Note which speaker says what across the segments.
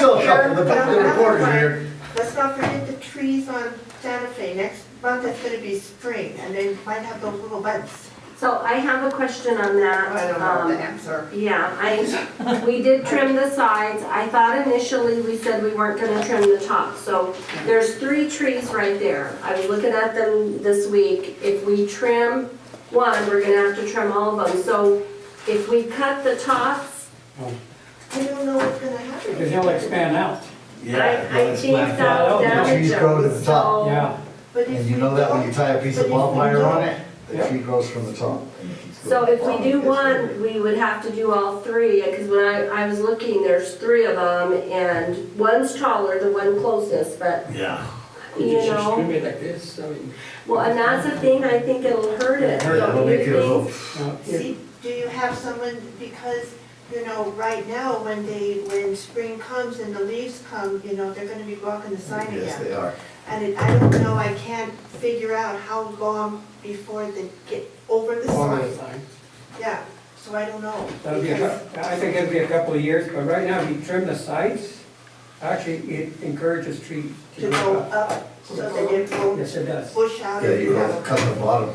Speaker 1: the the reporter here.
Speaker 2: Let's not forget the trees on Santa Fe. Next month it's gonna be spring and they might have those little buds.
Speaker 3: So I have a question on that.
Speaker 2: I don't know
Speaker 3: um,
Speaker 2: the answer.
Speaker 3: Yeah, I, we did trim the sides. I thought initially we said we weren't gonna trim the top, so there's three trees right there. I was looking at them this week. If we trim one, we're gonna have to trim all of them. So if we cut the tops,
Speaker 2: I don't know what's gonna
Speaker 4: Because
Speaker 2: happen.
Speaker 4: they'll expand out,
Speaker 3: I, I think that'll
Speaker 4: out.
Speaker 3: damage
Speaker 5: Trees grow to
Speaker 3: them,
Speaker 5: the top.
Speaker 3: so-
Speaker 4: yeah.
Speaker 2: But if
Speaker 5: And you
Speaker 2: we
Speaker 5: know that when you
Speaker 2: don't,
Speaker 5: tie a piece of
Speaker 2: But if you
Speaker 5: bonfire on it,
Speaker 4: Yeah.
Speaker 5: the tree grows from the top.
Speaker 3: So if we do one, we would have to do all three, because when I, I was looking, there's three of them, and one's taller, the one closest, but,
Speaker 1: Yeah.
Speaker 3: you
Speaker 4: Just
Speaker 3: know.
Speaker 4: trim it like this, I mean,
Speaker 3: Well, and that's the thing, I think it'll hurt it.
Speaker 4: Hurt it,
Speaker 3: don't
Speaker 5: It'll
Speaker 3: you
Speaker 5: make it a
Speaker 3: think?
Speaker 5: little,
Speaker 4: uh, it-
Speaker 2: see, do you have someone, because, you know, right now, when they, when spring comes and the leaves come, you know, they're gonna be walking the sign
Speaker 5: yes,
Speaker 2: again.
Speaker 5: they are.
Speaker 2: And it- I don't know, I can't figure out how long before they get over the
Speaker 4: all the
Speaker 2: sign.
Speaker 4: time.
Speaker 2: Yeah, so I don't know.
Speaker 4: That'll be, a
Speaker 2: because-
Speaker 4: cou- I think it'll be a couple of years, but right now, if you trim the sides, actually, it encourages tree
Speaker 2: to
Speaker 4: to
Speaker 2: go
Speaker 4: grow up.
Speaker 2: up, so that it won't
Speaker 4: Yes, it does.
Speaker 2: push out.
Speaker 5: Yeah,
Speaker 2: and
Speaker 5: you
Speaker 2: have
Speaker 5: go
Speaker 2: a-
Speaker 5: cut the bottom.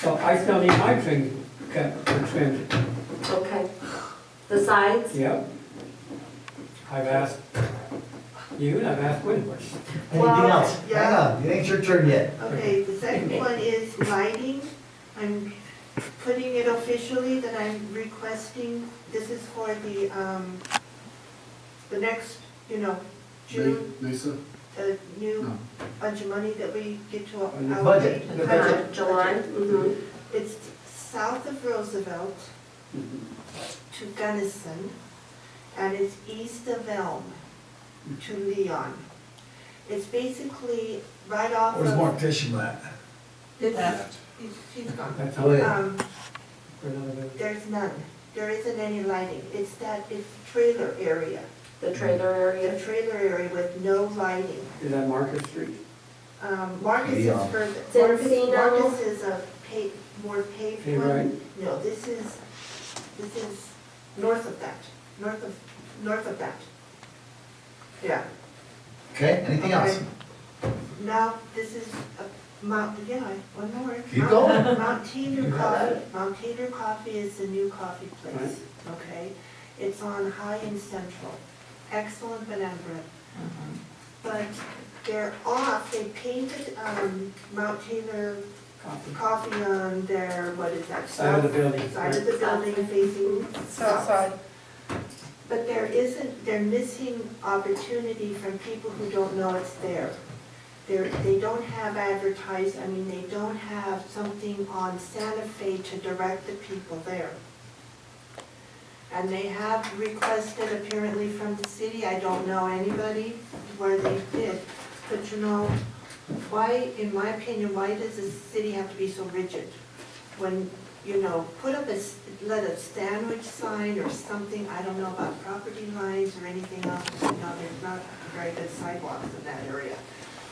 Speaker 4: So I still need my trim cut, or trimmed,
Speaker 3: Okay. The sides?
Speaker 4: yep. I've asked you, and I've asked Winbush.
Speaker 5: Anything
Speaker 3: Well,
Speaker 5: else? Hang
Speaker 2: yeah.
Speaker 5: on, it ain't your turn yet.
Speaker 2: Okay, the second one is lighting. I'm putting it officially that I'm requesting, this is for the, um, the next, you know, June,
Speaker 6: Lisa?
Speaker 2: the new
Speaker 6: No.
Speaker 2: bunch of money that we get to.
Speaker 4: On the
Speaker 5: budget.
Speaker 2: allocate.
Speaker 4: The budget.
Speaker 3: Uh, July? Mm-hmm.
Speaker 2: It's south of Roosevelt to Gunnison, and it's east of Elm to Leon. It's basically right off of.
Speaker 5: Fishman at?
Speaker 2: It's- he's- he's gone.
Speaker 4: That's
Speaker 5: Oh,
Speaker 4: all.
Speaker 5: yeah.
Speaker 2: Um,
Speaker 4: For another day.
Speaker 2: there's none, there isn't any lighting, it's that, it's trailer area,
Speaker 3: The trailer
Speaker 2: a
Speaker 3: area?
Speaker 2: trailer area with no lighting.
Speaker 4: Is that Market Street?
Speaker 2: Um, Marcus is
Speaker 5: Leon.
Speaker 2: further,
Speaker 3: It's in
Speaker 2: Marcus,
Speaker 3: Reno.
Speaker 2: Marcus is a paved, more paved
Speaker 4: Paved,
Speaker 2: one. No, this is, this is north of that, north of, north of that. Yeah,
Speaker 5: Okay, anything else?
Speaker 2: Okay. now, this is a Mount, yeah, one more.
Speaker 5: Keep
Speaker 2: Mount-
Speaker 5: going.
Speaker 2: Mount Tater
Speaker 5: You got
Speaker 2: Coffee,
Speaker 5: it.
Speaker 2: Mount Tater Coffee is the new coffee place, okay? It's on High and Central, excellent banana bread.
Speaker 5: Mm-hmm.
Speaker 2: But they're off, they painted, um, Mount Taylor
Speaker 4: Copy.
Speaker 2: coffee on their, what is that?
Speaker 4: Side of the
Speaker 2: south-
Speaker 4: building.
Speaker 2: Side of the building facing south. But there isn't, they're missing opportunity from people who don't know it's there. They're, they don't have advertised, I mean, they don't have something on Santa Fe to direct the people there. And they have requested apparently from the city, I don't know anybody where they did, but you know, why, in my opinion, why does the city have to be so rigid? When you know, put up a, s- let a sandwich sign or something, I don't know about property lines or anything else, you know, there's not very good sidewalks in that area.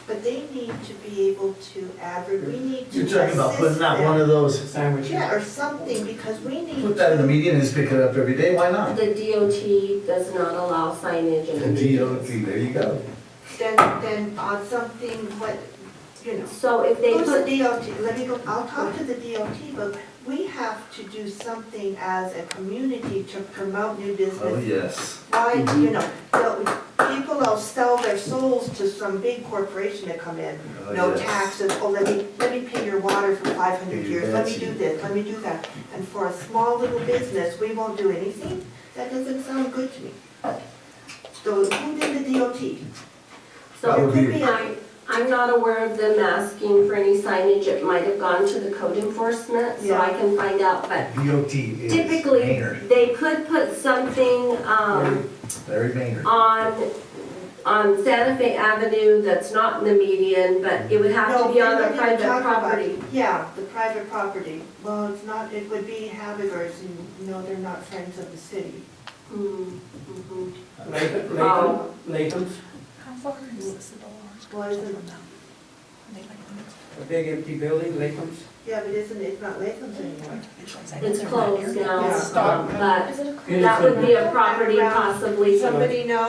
Speaker 2: But they need to be able to advert, we need to
Speaker 5: You're
Speaker 2: assist
Speaker 5: talking about putting out one
Speaker 2: them.
Speaker 5: of those,
Speaker 4: Sandwich.
Speaker 2: Yeah, or something, because we need.
Speaker 5: put that in the
Speaker 2: to-
Speaker 5: media and just pick it up every day, why not?
Speaker 3: The DOT does not allow signage
Speaker 5: The
Speaker 3: in the
Speaker 5: DOT, there you go.
Speaker 2: Then, then on something, what, you know.
Speaker 3: So if they
Speaker 2: Who's
Speaker 3: put
Speaker 2: the DOT, let me go, I'll talk to the DOT, but we have to do something as a community to promote new business.
Speaker 5: Oh, Mm-hmm. yes.
Speaker 2: why, you know, the- people will sell their souls to some big corporation to come in.
Speaker 5: Oh,
Speaker 2: No
Speaker 5: yes.
Speaker 2: taxes, oh, let me, let me pay your water for five hundred years, let me do this, let me do that. And for a small little business, we won't do anything? That doesn't sound good to me. So who did the DOT?
Speaker 3: So
Speaker 5: That
Speaker 3: it
Speaker 5: would be-
Speaker 3: could be, I, I'm not aware of them asking for any signage, it might have gone to the code enforcement, so I
Speaker 2: Yeah.
Speaker 3: can find out, but
Speaker 5: DOT is
Speaker 3: typically,
Speaker 5: Maynard,
Speaker 3: they could put something, um,
Speaker 5: Larry Maynard.
Speaker 3: on, on Santa Fe Avenue that's not in the median, but it would have to be on the
Speaker 2: No, we're not
Speaker 3: private
Speaker 2: gonna talk about it.
Speaker 3: property.
Speaker 2: Yeah, the private property. Well, it's not, it would be Habivers, and no, they're not friends of the city.
Speaker 3: Mm, mhm.
Speaker 4: Latham,
Speaker 3: Oh.
Speaker 4: Latham, Latham's,
Speaker 7: How far is this at all?
Speaker 2: Well, isn't,
Speaker 4: a big empty building, Latham's.
Speaker 2: yeah, but isn't, it's not Latham's anymore.
Speaker 3: It's closed now,
Speaker 2: Yeah.
Speaker 3: um, but
Speaker 7: Is it a?
Speaker 4: It is
Speaker 3: that would be a property
Speaker 2: Around-
Speaker 3: possibly.
Speaker 2: Somebody know